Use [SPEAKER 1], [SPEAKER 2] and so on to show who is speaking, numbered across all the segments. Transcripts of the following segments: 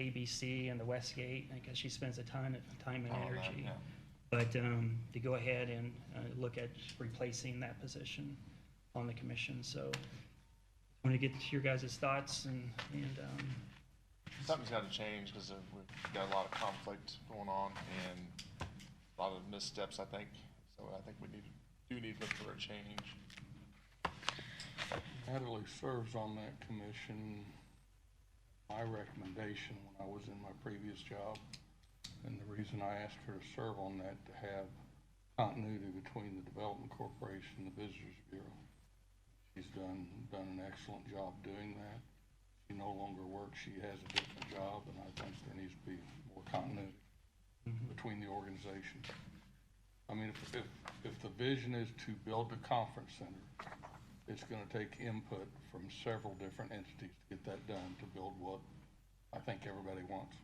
[SPEAKER 1] ABC and the Westgate, because she spends a ton of time and
[SPEAKER 2] All of that,
[SPEAKER 1] energy.
[SPEAKER 2] yeah.
[SPEAKER 1] But um, to go ahead and uh, look at replacing that position on the commission, so I want to get your guys' thoughts and, and, um,
[SPEAKER 2] Something's got to change because we've got a lot of conflict going on and a lot of missteps, I think. So I think we need, do need to look for a change.
[SPEAKER 3] Natalie serves on that commission. My recommendation when I was in my previous job, and the reason I asked her to serve on that, to have continuity between the Development Corporation and the Visitors Bureau. She's done, done an excellent job doing that. She no longer works, she has a different job, and I think there needs to be more continuity between the organizations. I mean, if, if, if the vision is to build a conference center, it's gonna take input from several different entities to get that done, to build what I think everybody wants.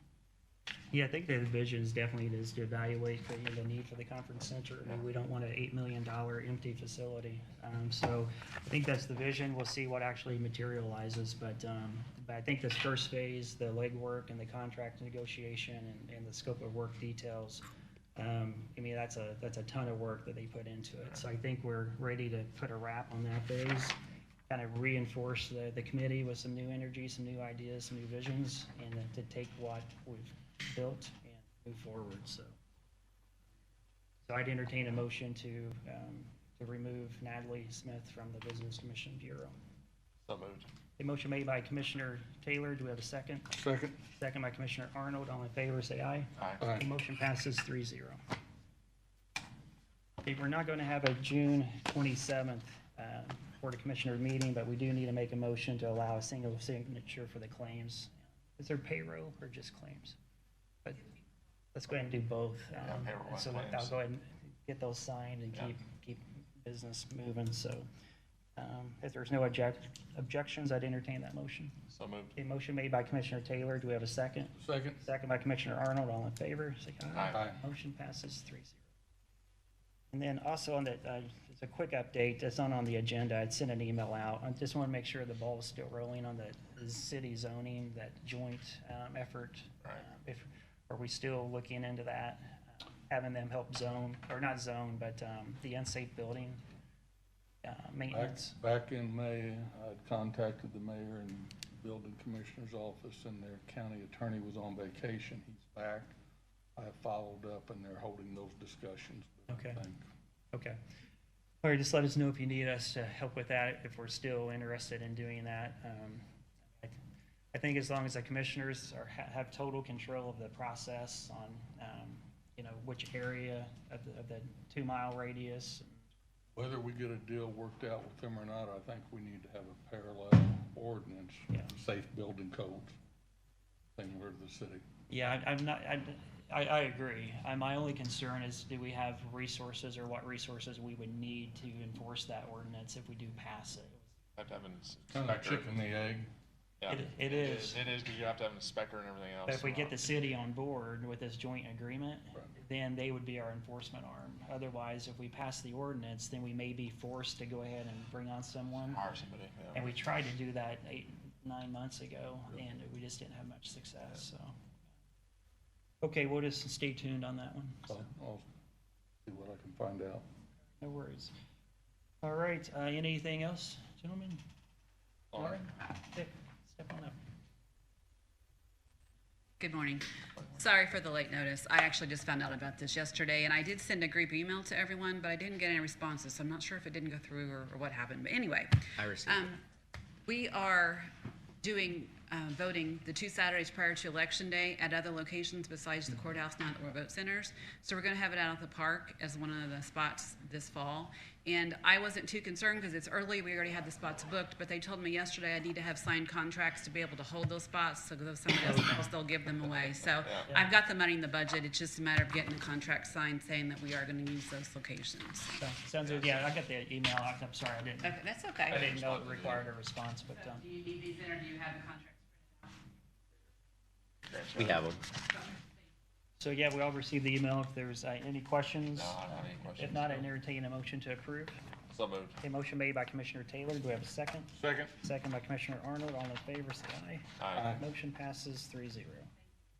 [SPEAKER 1] yeah, I think the vision is definitely is to evaluate the, the need for the conference center. I mean, we don't want an eight million dollar empty facility. Um, So I think that's the vision. We'll see what actually materializes, but, um, but I think this first phase, the legwork and the contract negotiation and, and the scope of work details, um, I mean, that's a, that's a ton of work that they put into it. So I think we're ready to put a wrap on that phase, kind of reinforce the, the committee with some new energy, some new ideas, some new visions, and then to take what we've built and move forward, so. So I'd entertain a motion to, um, to remove Natalie Smith from the Business Commission Bureau.
[SPEAKER 2] So moved.
[SPEAKER 1] A motion made by Commissioner Taylor. Do we have a second?
[SPEAKER 3] Second.
[SPEAKER 1] Second by Commissioner Arnold. All in favor, say aye.
[SPEAKER 2] Aye.
[SPEAKER 3] Aye.
[SPEAKER 1] The motion passes three zero. Okay, we're not going to have a June twenty-seventh, uh, Board of Commissioner meeting, but we do need to make a motion to allow a single signature for the claims. Is there payroll or just claims? But let's go ahead and do both.
[SPEAKER 2] Yeah,
[SPEAKER 1] um,
[SPEAKER 2] payroll and
[SPEAKER 1] So
[SPEAKER 2] claims.
[SPEAKER 1] I'll go ahead and get those signed and
[SPEAKER 2] Yeah.
[SPEAKER 1] keep, keep business moving, so. um, If there's no object, objections, I'd entertain that motion.
[SPEAKER 2] So moved.
[SPEAKER 1] A motion made by Commissioner Taylor. Do we have a second?
[SPEAKER 3] Second.
[SPEAKER 1] Second by Commissioner Arnold, all in favor, say aye.
[SPEAKER 2] Aye.
[SPEAKER 1] Motion passes three zero. And then also on the, uh, it's a quick update, that's not on the agenda, I'd sent an email out. I just want to make sure the ball is still rolling on the- the city zoning, that joint um, effort.
[SPEAKER 2] Right.
[SPEAKER 1] Uh, If, are we still looking into that, having them help zone, or not zone, but um, the unsafe building uh,
[SPEAKER 3] Back,
[SPEAKER 1] maintenance?
[SPEAKER 3] back in May, I'd contacted the mayor and building commissioner's office, and their county attorney was on vacation. He's back. I followed up, and they're holding those discussions.
[SPEAKER 1] Okay.
[SPEAKER 3] I think
[SPEAKER 1] Okay. All right, just let us know if you need us to help with that, if we're still interested in doing that. Um, I- I think as long as the commissioners are, ha- have total control of the process on, um, you know, which area of the, of the two-mile radius.
[SPEAKER 3] Whether we get a deal worked out with them or not, I think we need to have a parallel ordinance,
[SPEAKER 1] Yeah.
[SPEAKER 3] safe building codes, similar to the city.
[SPEAKER 1] Yeah, I- I'm not, I, I, I agree. I, my only concern is do we have resources or what resources we would need to enforce that ordinance if we do pass it?
[SPEAKER 2] Have to have an
[SPEAKER 3] Kind of
[SPEAKER 2] inspector.
[SPEAKER 3] chicken the egg.
[SPEAKER 2] Yeah.
[SPEAKER 1] It- it is.
[SPEAKER 2] It is because you have to have an inspector and everything else.
[SPEAKER 1] But if we get the city on board with this joint agreement,
[SPEAKER 3] Right.
[SPEAKER 1] then they would be our enforcement arm. Otherwise, if we pass the ordinance, then we may be forced to go ahead and bring on someone.
[SPEAKER 2] Hire somebody, yeah.
[SPEAKER 1] And we tried to do that eight, nine months ago, and we just didn't have much success, so. Okay, we'll just stay tuned on that one.
[SPEAKER 3] I'll I'll see what I can find out.
[SPEAKER 1] No worries. All right, uh, anything else, gentlemen?
[SPEAKER 2] All right.
[SPEAKER 1] Dick, step on up.
[SPEAKER 4] Good morning. Sorry for the late notice. I actually just found out about this yesterday, and I did send a group email to everyone, but I didn't get any responses, so I'm not sure if it didn't go through or, or what happened. But anyway,
[SPEAKER 5] I received
[SPEAKER 4] um, we are doing uh, voting the two Saturdays prior to Election Day at other locations besides the courthouse now that we're vote centers. So we're going to have it out at the park as one of the spots this fall. And I wasn't too concerned because it's early. We already had the spots booked, but they told me yesterday I need to have signed contracts to be able to hold those spots. So if somebody else, they'll give them away. So I've got the money in the budget. It's just a matter of getting the contract signed saying that we are going to use those locations.
[SPEAKER 1] So, Sounds good, yeah, I got the email, I'm I'm sorry, I didn't,
[SPEAKER 4] Okay, that's
[SPEAKER 1] I
[SPEAKER 4] okay.
[SPEAKER 1] didn't know it required a response, but, um.
[SPEAKER 4] Do you need these in or do you have the contracts?
[SPEAKER 5] We have them.
[SPEAKER 1] So yeah, we all received the email. If there's uh, any questions?
[SPEAKER 2] No, I don't have any
[SPEAKER 1] uh,
[SPEAKER 2] questions,
[SPEAKER 1] If not, I
[SPEAKER 2] no.
[SPEAKER 1] entertain a motion to approve.
[SPEAKER 2] So moved.
[SPEAKER 1] A motion made by Commissioner Taylor. Do we have a second?
[SPEAKER 3] Second.
[SPEAKER 1] Second by Commissioner Arnold. All in favor, say aye.
[SPEAKER 2] Aye.
[SPEAKER 1] Motion passes three zero.